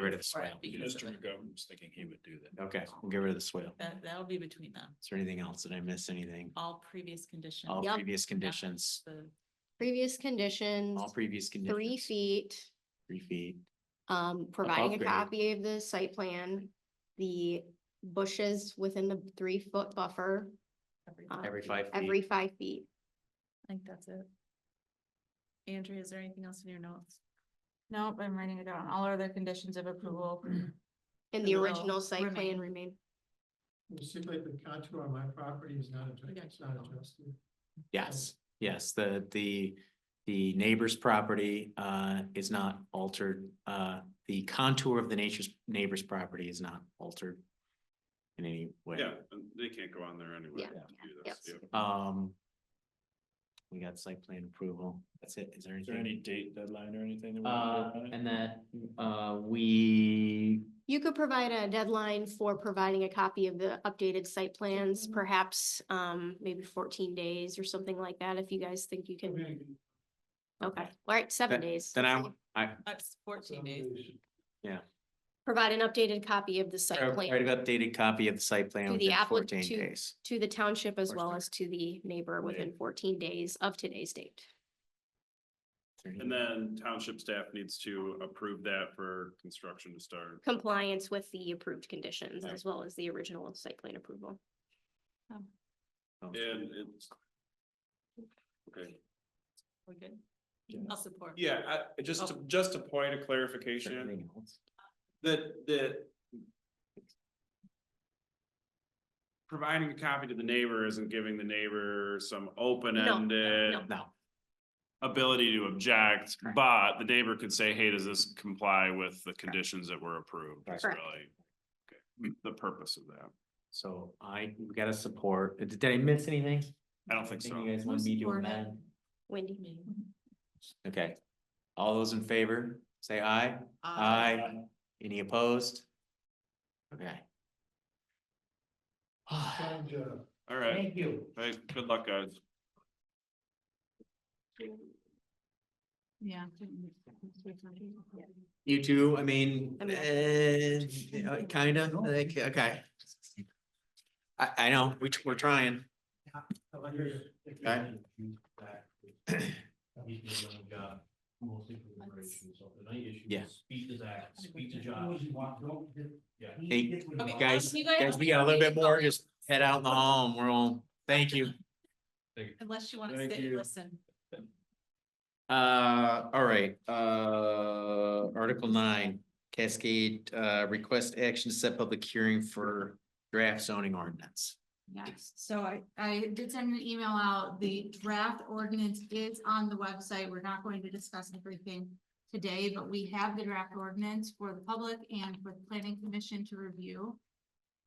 rid of the swale. Right. Mr. McGovern was thinking he would do that. Okay, we'll get rid of the swale. Uh, That, that'll be between them, Is there anything else? Did I miss anything? all previous conditions. All Yep. previous conditions, The- Previous conditions, all previous conditions. three feet, Three feet. um, providing a grade. copy of the site plan, the bushes within the three foot buffer. everything. um, Every five feet. Every five feet. I think that's it. Andrea, is there anything else in your notes? Nope, I'm writing it down. All other conditions of approval. And And the will original site remain. plan remain. It seems like the contour on my property is not We adjusted, got it's not you. adjusted. Yes, yes, the, the, the neighbor's property, uh, is not altered. Uh, the contour of the nature's, neighbor's property is not altered in any way. Yeah, and they can't go on there anyway. Yeah, to do yeah, this, yeah. Um, we got site plan approval. That's it. Is there Is there anything? any date deadline or anything? that we Uh, wanna do on it? and that, uh, we, You could provide a deadline for providing a copy of the updated site plans, Mhm. perhaps, um, maybe fourteen days or something like that, if you guys think you can. Okay, Okay. all right, seven days. then I, I, That's fourteen days. Provide an updated copy of the site I plan updated copy of the site plan To the within applic- fourteen to- days. to the township as well Fourteen. as to the neighbor within fourteen days of today's date. Is there any- And then township staff needs to approve that for construction to start. Compliance with the approved conditions Right. as well as the original site plan approval. Oh, And it's. Okay, We're good. Yeah. I'll support. yeah, I, I just, to- just a point of is there clarification, anything else? that, that. Providing a copy to the neighbor isn't giving the neighbor some open-ended no. No, ability to object, Correct. but the neighbor could say, hey, does this comply with the conditions that were approved? That's Correct. really okay, the purpose of that. so I, we got a support. Did I miss anything? I don't think so. You guys want me to Support it. amend? Wendy? Okay. All those in favor, say aye. Aye. Any opposed? Okay. Ah. Fine job. All right, you. All right, good luck, guys. Yeah. You too, I mean, I'm not- uh, kind of, like, okay. I, I know, we, we're trying. I like it. Okay. Yeah. Speed is act, speed is job. Yeah. Hey, Okay, guys, you guys- guys, we got a little bit more, just head out in the hall and we're on, thank you. Unless you want to Thank sit and you. listen. Uh, all right, uh, Article nine, Cascade, uh, request action to set public hearing for draft zoning ordinance. Yes, so I, I did send an email out. The draft ordinance is on the website. We're not going to discuss everything today, but we have the draft ordinance for the public and for the planning commission to review.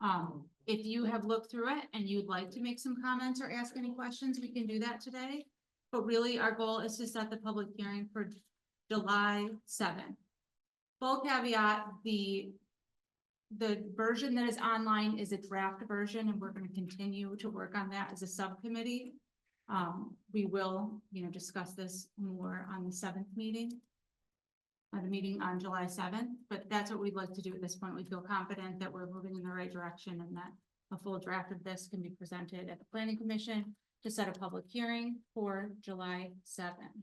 Um, if you have looked through it and you'd like to make some comments or ask any questions, we can do that today. But really, our goal is to set the public hearing for July seventh. Full caveat, the the version that is online is a draft version, and we're gonna continue to work on that as a subcommittee. Um, we will, you know, discuss this more on the seventh meeting. At the meeting on July seventh, but that's what we'd like to do at this point. We feel confident that we're moving in the right direction and that a full draft of this can be presented at the planning commission to set a public hearing for July seventh.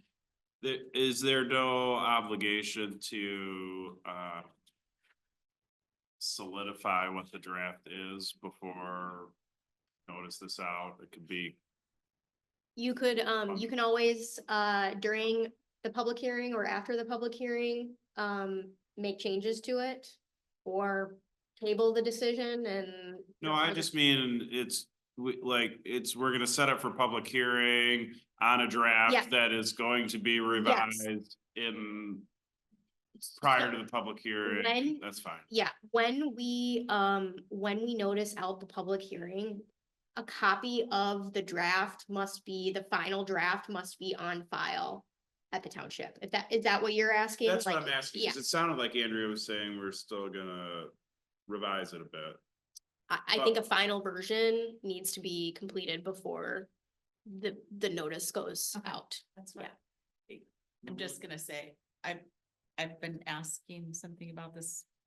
There, is there no obligation to, uh. Solidify what the draft is before notice this out, it could be, You could, um, you can always, uh, during the public hearing or after the public hearing, um, make changes to it. Or table the decision and. no, I just mean, it's, we, like, it's, we're gonna set up for public hearing. On a Yeah. draft that is going to be revised in, prior to the public hearing, When- that's fine. Yeah, when we, um, when we notice out the public hearing, a copy of the draft must be, the final draft must be on file at the township. If that, is that what you're asking? That's what Like, I'm asking, Yeah, because it sounded like Andrea was saying we're still gonna revise it a bit. I, I think a final version needs to be completed before the, the notice goes Okay. out. That's right. I'm just gonna say, I've, I've been asking something about this